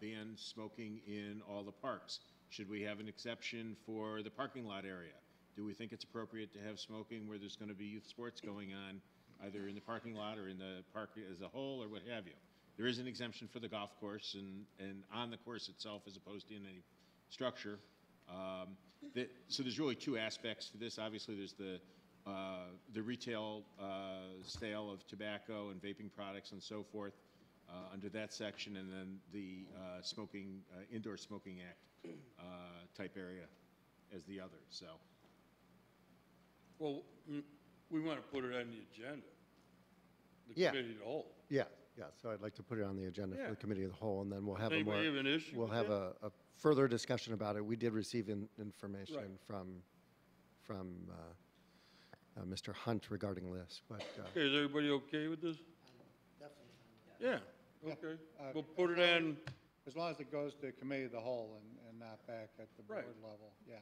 ban smoking in all the parks? Should we have an exception for the parking lot area? Do we think it's appropriate to have smoking where there's going to be youth sports going on, either in the parking lot or in the park as a whole, or what have you? There is an exemption for the golf course and, and on the course itself as opposed to in any structure. Um, that- So there's really two aspects to this. Obviously, there's the, uh, the retail uh, sale of tobacco and vaping products and so forth uh, under that section, and then the uh, smoking, uh, Indoor Smoking Act uh, type area as the other, so. Well, mm, we want to put it on the agenda. The Yeah. committee of the whole. Yeah, yeah, so I'd like to put it on the agenda for Yeah. the committee of the whole, and then we'll have a more. Anybody have an issue We'll with have a, that? a further discussion about it. We did receive in, information from, from, uh, uh, Mr. Hunt regarding this, but, uh, Okay, is everybody okay with this? Definitely. Yeah, okay. We'll put it on, As long as it goes to committee of the whole and, and not back at the Right. board level, yeah.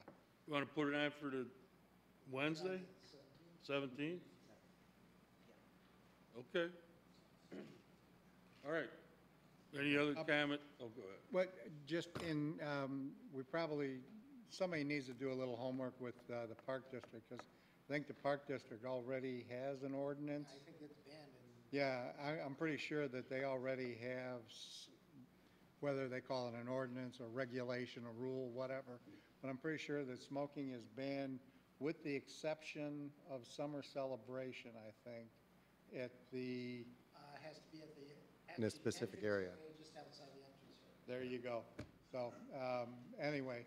you want to put it on for the Wednesday? Seventeenth? Okay. All right. Any other comment? Oh, go ahead. But just in, um, we probably, somebody needs to do a little homework with, uh, the park district, because I think the park district already has an ordinance. I think it's banned in, Yeah, I, I'm pretty sure that they already have, s- whether they call it an ordinance or regulation or rule, whatever, but I'm pretty sure that smoking is banned with the exception of summer celebration, I think, at the, uh, has to be at the. In a at the specific entrance area. Just outside the entrance area. there you go. So, um, anyway,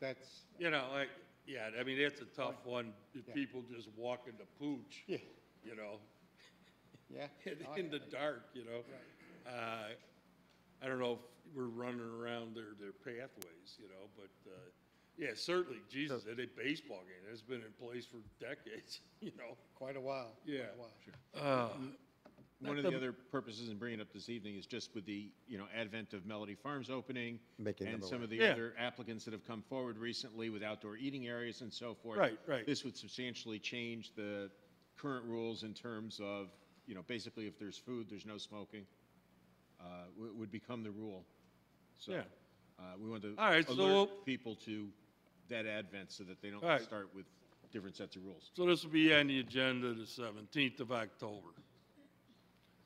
that's, You know, like, yeah, I mean, that's a tough one. If Yeah. people just walking the pooch, yeah, you know, Oh, yeah. in- I- in the dark, you know? Uh, I don't know if we're running around their, their pathways, you know, but, uh, yeah, certainly, Jesus, at a baseball game, that's been in place for decades, you know? Uh, Quite a while. quite a Yeah. while. One of the other purposes in bringing it up this evening is just with the, you know, advent of Melody Farms opening Making them and some aware. of the Yeah. other applicants that have come forward recently with outdoor eating areas and so forth. Right, right. This would substantially change the current rules in terms of, you know, basically if there's food, there's no smoking. Uh, w- would become the rule. So, Yeah. uh, we want to All right, so we'll- alert people to that advent so that they All right. don't start with different sets of rules. So this will be on the agenda the seventeenth of October.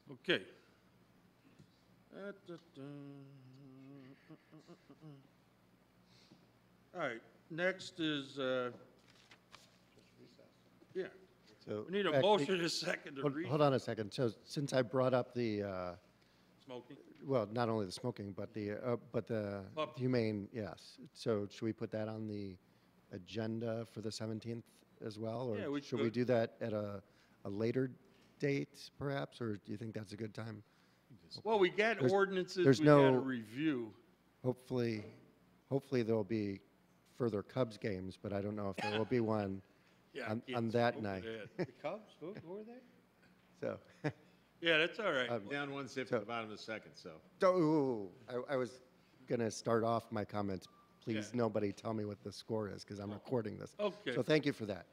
Okay. Uh, da, da, All right, next is, uh, yeah, so. we need a actually- motion and a second to Hold read hold on a second. So since I brought up the, uh, smoking. well, not only the smoking, but the, uh, but the Up. humane, yes. So should we put that on the agenda for the 17th as well? Yeah, Or we should we could. do that at a, a later date perhaps, or do you think that's a good time? Well, we got There's- ordinances there's we gotta no- review. Hopefully, hopefully there'll be further Cubs games, but I don't know if there will be one Yeah, I on, can't on that smoke night. that. The Cubs, who, who were they? So, Yeah, that's all Um, right. Down one zip at the bottom of the second, so. oh, I, I was gonna start off my comments. Please, Yeah. Oh. nobody tell me what the score is, because I'm recording this. Okay. So thank you for that.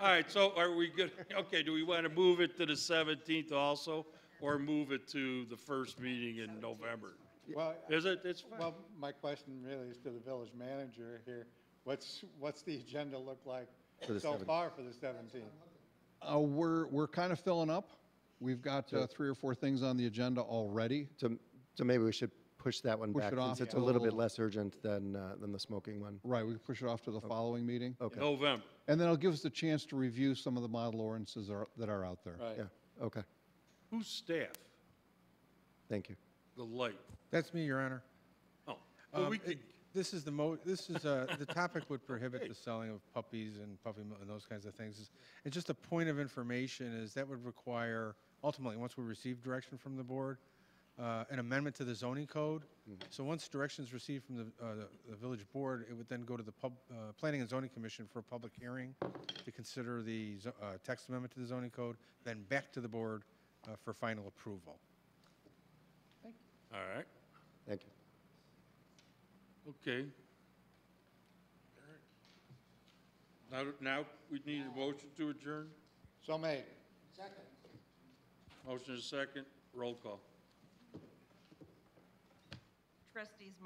All right, so are we good? Okay, do we want to move it to the 17th also, or move it to the first meeting in November? Well, Is it, it's fine. well, my question really is to the village manager here. What's, what's the agenda look like the so 17th. far for the 17th? Uh, we're, we're kind of filling up. We've got uh, three or four things on the agenda already. So, so maybe we should push that one Push back, it off since it's a little bit till- less urgent than, uh, than the smoking one. Right, we can push it off to the following meeting. November. And then it'll give us the chance to review some of the model ordinances that are, that are out there. Right. Yeah, okay, Who's staff? thank you. The light? That's me, Your Honor. Oh, Uh, well, we Um, could, it- This is the mo, this is, uh, the topic would prohibit the selling of puppies and puppy mill and those kinds of things. And just a point of information is that would require, ultimately, once we receive direction from the board, uh, an amendment to the zoning code. Mm-hmm. So once directions received from the, uh, the- the village board, it would then go to the pub, uh, planning and zoning commission for a public hearing to consider the, zo- uh, text amendment to the zoning code, then back to the board, uh, for final approval. all right, Thank you. okay. Now, now we need a motion to adjourn? So made. Second. Motion is second, roll call. Trustees